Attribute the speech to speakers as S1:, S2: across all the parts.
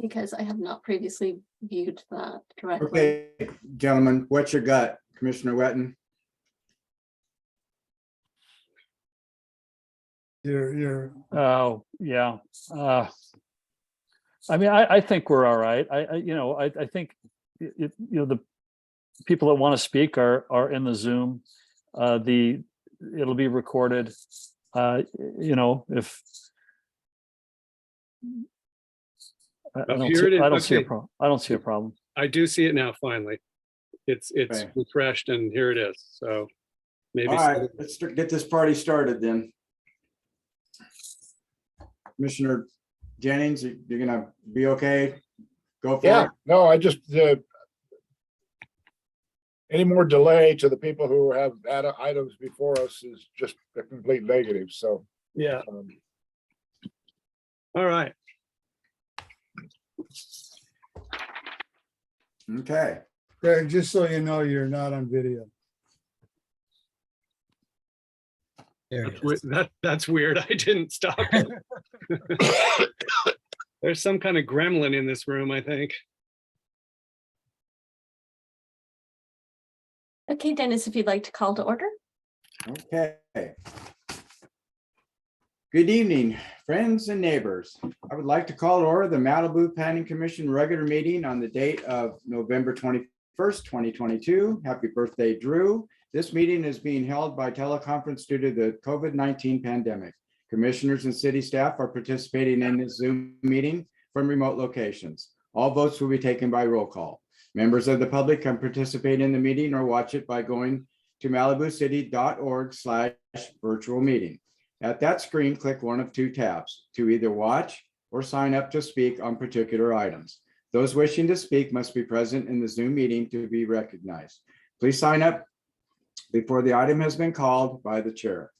S1: because I have not previously viewed that correctly.
S2: Okay, gentlemen, what's your gut? Commissioner Wetton?
S3: You're, you're,
S4: Oh, yeah. Uh, I mean, I, I think we're all right. I, I, you know, I, I think, y- y- you know, the people that want to speak are, are in the Zoom. Uh, the, it'll be recorded. Uh, y- you know, if I I
S5: Up
S4: don't
S5: here it
S4: see,
S5: is,
S4: I don't see a
S5: okay.
S4: problem. I don't see a problem.
S5: I do see it now, finally. It's, it's
S2: Okay.
S5: refreshed and here it is, so.
S2: All
S5: Maybe,
S2: right, let's start- get this party started then. Commissioner Jennings, you- you're gonna be okay? Go for
S3: yeah,
S2: it.
S3: no, I just, uh, any more delay to the people who have had items before us is just a complete negative, so.
S5: yeah,
S3: um,
S5: all right.
S2: Okay,
S6: Greg, just so you know, you're not on video.
S7: There
S5: That's
S7: it
S5: we-
S7: is.
S5: That, that's weird. I didn't stop. it. There's some kind of gremlin in this room, I think.
S1: Okay, Dennis, if you'd like to call to order.
S2: okay. Good evening, friends and neighbors. I would like to call to order the Malibu Planning Commission regular meeting on the date of November twenty-first, twenty twenty-two. Happy birthday, Drew. This meeting is being held by teleconference due to the COVID-nineteen pandemic. Commissioners and city staff are participating in this Zoom meeting from remote locations. All votes will be taken by roll call. Members of the public can participate in the meeting or watch it by going to malibucity.org slash virtual meeting. At that screen, click one of two tabs to either watch or sign up to speak on particular items. Those wishing to speak must be present in the Zoom meeting to be recognized. Please sign up before the item has been called by the chair.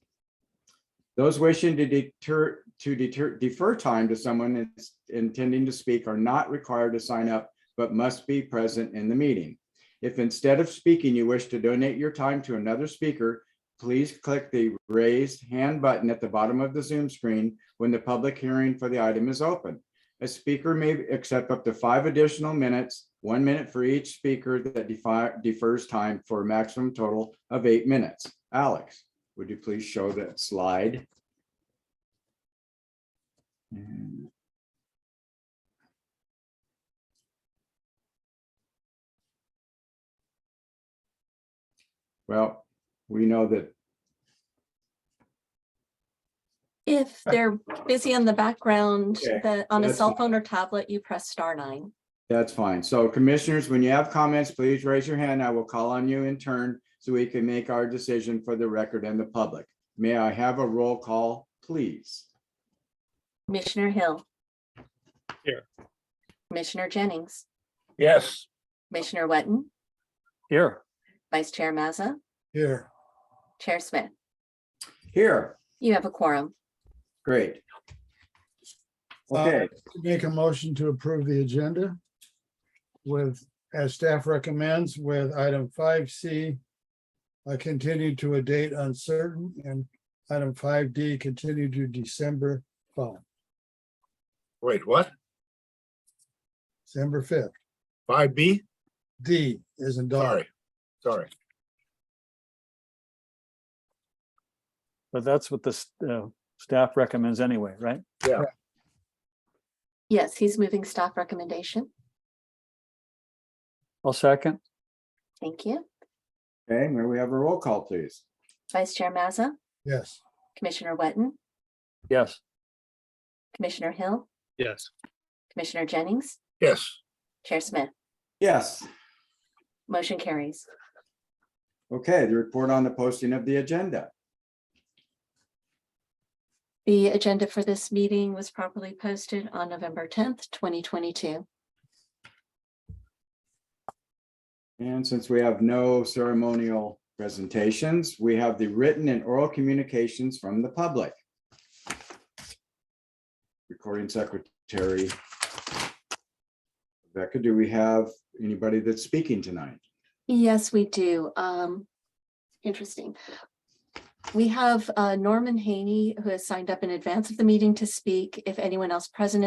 S2: Those wishing to deter, to deter, defer time to someone that's intending to speak are not required to sign up, but must be present in the meeting. If instead of speaking, you wish to donate your time to another speaker, please click the raised hand button at the bottom of the Zoom screen when the public hearing for the item is open. A speaker may accept up to five additional minutes, one minute for each speaker that defi- defers time for a maximum total of eight minutes. Alex, would you please show that slide? And- Well, we know that
S1: If they're busy in the background,
S2: Okay,
S1: that on a
S2: that's
S1: cell phone or tablet, you press star nine.
S2: That's fine. So commissioners, when you have comments, please raise your hand. I will call on you in turn so we can make our decision for the record and the public. May I have a roll call, please?
S1: Commissioner Hill.
S5: Here.
S1: Commissioner Jennings,
S3: Yes,
S1: Commissioner Wetton,
S4: Here.
S1: Vice Chair Mazza,
S6: Here,
S1: Chair Smith.
S2: Here,
S1: You have a quorum.
S2: great.
S6: Uh,
S2: Okay,
S6: make a motion to approve the agenda with, as staff recommends, with item five C, uh, continue to a date uncertain, and item five D, continue to December five,
S3: wait, what?
S6: December fifth.
S3: Five B?
S6: D is in dog.
S3: Sorry, sorry.
S4: But that's what the s- uh, staff recommends anyway, right?
S1: Yes, he's moving staff recommendation.
S4: I'll second.
S1: Thank you.
S2: okay, may we have a roll call, please?
S1: Vice Chair Mazza,
S6: Yes,
S1: Commissioner Wetton,
S4: Yes.
S1: Commissioner Hill,
S5: Yes,
S1: Commissioner Jennings,
S3: Yes,
S1: Chair Smith.
S2: Yes,
S1: Motion carries.
S2: okay, the report on the posting of the agenda.
S1: The agenda for this meeting was properly posted on November tenth, twenty twenty-two.
S2: And since we have no ceremonial presentations, we have the written and oral communications from the public. Recording Secretary. Rebecca, do we have anybody that's speaking tonight?
S1: Yes, we do. Um, interesting. We have uh, Norman Haney, who has signed up in advance of the meeting to speak. If anyone else present